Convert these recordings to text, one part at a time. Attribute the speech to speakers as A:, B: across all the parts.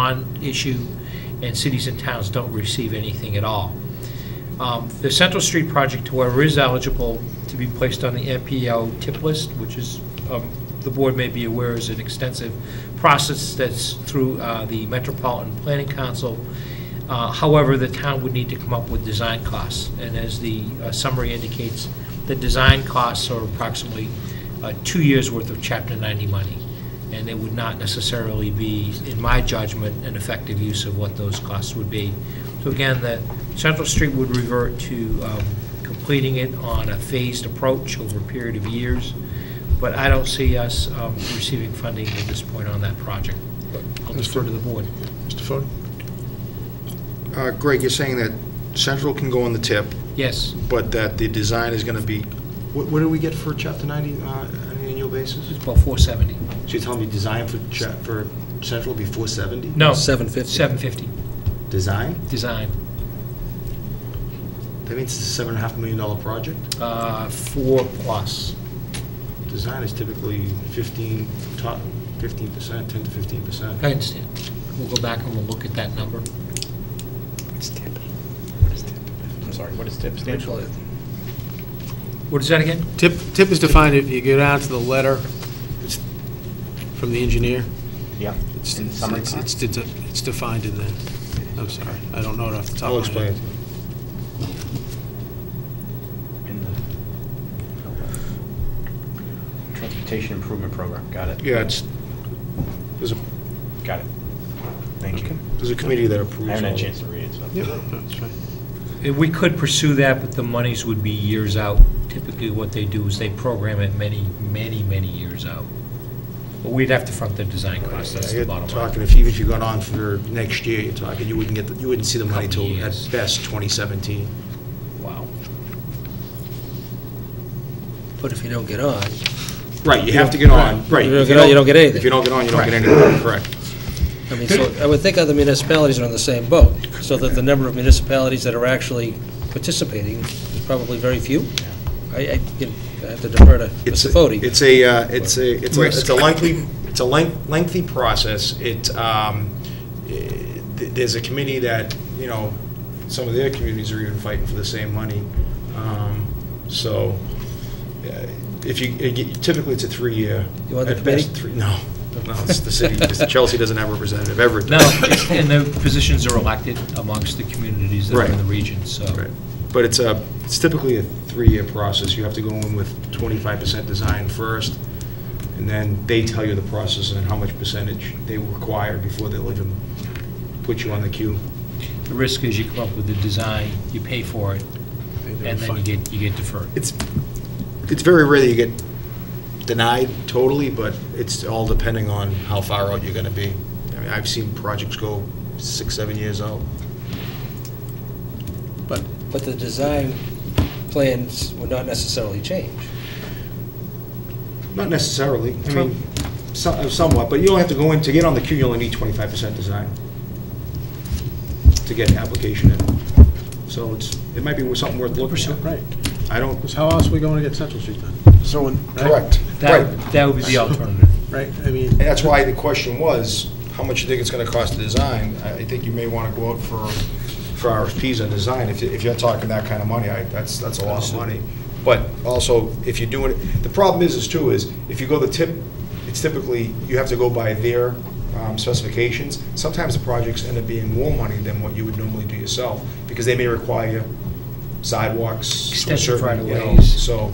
A: bond issue, and cities and towns don't receive anything at all. Um, The Central Street project, however, is eligible to be placed on the MPO tip list, which is, um, the board may be aware, is an extensive process that's through uh, the Metropolitan Planning Council. Uh, However, the town would need to come up with design costs, and as the uh, summary indicates, the design costs are approximately uh, two years' worth of Chapter 90 money, and it would not necessarily be, in my judgment, an effective use of what those costs would be. So again, the Central Street would revert to um, completing it on a phased approach over a period of years, but I don't see us um, receiving funding at this point on that project. I'll defer to the board.
B: Mr. Fode?
C: Uh, Greg, you're saying that Central can go on the tip,
A: Yes,
C: but that the design is going to be, what what do we get for Chapter 90 uh, on an annual basis?
A: it's about 470.
C: So you're telling me design for, cha- for Central will be 470?
A: No,
D: 750.
A: 750,
C: Design?
A: design,
C: That means it's a seven and a half million dollar project?
A: uh, four plus.
C: Design is typically 15, top 15%, 10 to 15%.
A: I understand. We'll go back and we'll look at that number.
D: What's TIP? What is TIP? I'm sorry, what is TIP stand for?
A: What is that again?
E: Tip, tip is defined, if you go down to the letter, it's from the engineer.
D: Yeah.
E: It's,
D: In
E: it's,
D: summary
E: it's-
D: time?
E: it's it's defined in the, I'm sorry, I don't know it off the top
C: I'll
E: of my
C: explain
E: head.
C: it.
D: In the- Transportation Improvement Program, got it,
C: Yeah, it's, there's a,
D: got it. Thank you.
C: there's a committee that approves.
D: I haven't had
C: all
D: a chance to read it, so.
E: Yeah, that's right.
A: Uh, We could pursue that, but the monies would be years out. Typically, what they do is they program it many, many, many years out. But we'd have to front the design cost, that's
C: You're
A: the bottom line.
C: talking, if even if you got on for next year, you're talking, you wouldn't get, the- you wouldn't see the money
A: Couple
C: till at
A: years.
C: best 2017.
A: Wow.
F: But if you don't get on,
C: Right, you have to get on, right.
F: You don't
C: If
F: get on, you don't get anything.
C: If you don't get on, you don't get anything, correct.
F: I mean, so, I would think other municipalities are on the same boat, so that the number of municipalities that are actually participating is probably very few. I, I can- I have to defer to
C: It's
F: Mr. Fode.
C: It's a, uh, it's a, it's a it's a lengthy, it's a length- lengthy process. It, um, eh, th- there's a committee that, you know, some of their communities are even fighting for the same money. Um, So eh, if you, eh, you- typically it's a three-year.
F: You want the
C: at best
F: committee?
C: three- No, no, it's the city, because Chelsea doesn't have a representative, Everett
A: No,
C: does.
A: and the positions are elected amongst the communities that are in
C: Right.
A: the region, so.
C: Right. But it's a, it's typically a three-year process. You have to go in with 25% design first, and then they tell you the process and how much percentage they require before they'll even put you on the queue.
A: The risk is you come up with the design, you pay for it, and then you get, you get deferred.
C: It's, it's very rare that you get denied totally, but it's all depending on how far out you're going to be. I mean, I've seen projects go six, seven years out.
F: But the design plans would not necessarily change.
C: Not necessarily, I mean, so- somewhat, but you don't have to go in, to get on the queue, you only need twenty-five percent design to get an application in. So it's, it might be something worth looking at.
E: Right,
C: I don't,
E: because how else are we going to get Central Street done,
D: So when.
C: correct, right.
A: That, that would be the alternative.
E: right? I mean,
C: And that's why the question was, how much you think it's gonna cost to design? I I think you may wanna go out for, for RFPs on design, if, you- if you're talking that kind of money, I, that's, that's a lot of money. But also, if you're doing, it the problem is, is too, is if you go the tip, it's typically, you have to go by their um, specifications. Sometimes the projects end up being more money than what you would normally do yourself, because they may require sidewalks. to a
A: Extensive
C: certain, you know,
A: right-of-ways.
C: So,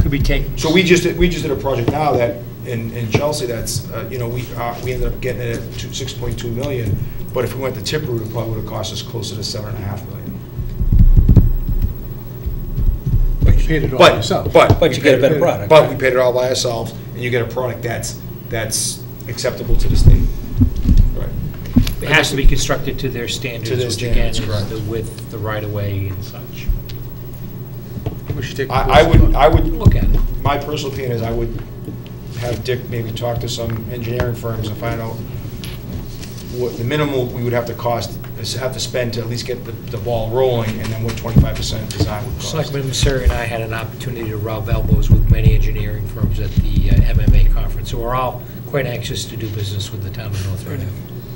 A: Could be taken.
C: so we just, did- we just did a project now that, in, in Chelsea, that's, uh, you know, we, uh, we ended up getting it at two, six point two million, but if we went the tip route, it probably would've cost us closer to seven and a half million.
E: but you paid it all
C: But,
E: yourself.
C: but.
F: But
C: we
F: you get a
C: paid-
F: better product,
C: But we paid it all by ourselves, and you get a product that's, that's acceptable to the state. Right.
A: It has to be constructed to their standards,
C: To their
A: which again
C: standards,
A: is
C: correct.
A: the width, the right-of-way and such.
E: We should take a
C: I, I
E: closer
C: would,
E: look.
C: I would
A: Look at it.
C: my personal opinion is I would have Dick maybe talk to some engineering firms and find out what the minimal we would have to cost, is have to spend to at least get the, the ball rolling, and then what twenty-five percent design would cost.
A: Selectman Messeri and I had an opportunity to rub elbows with many engineering firms at the uh, MMA conference, who are all quite anxious to do business with the town of North Reading.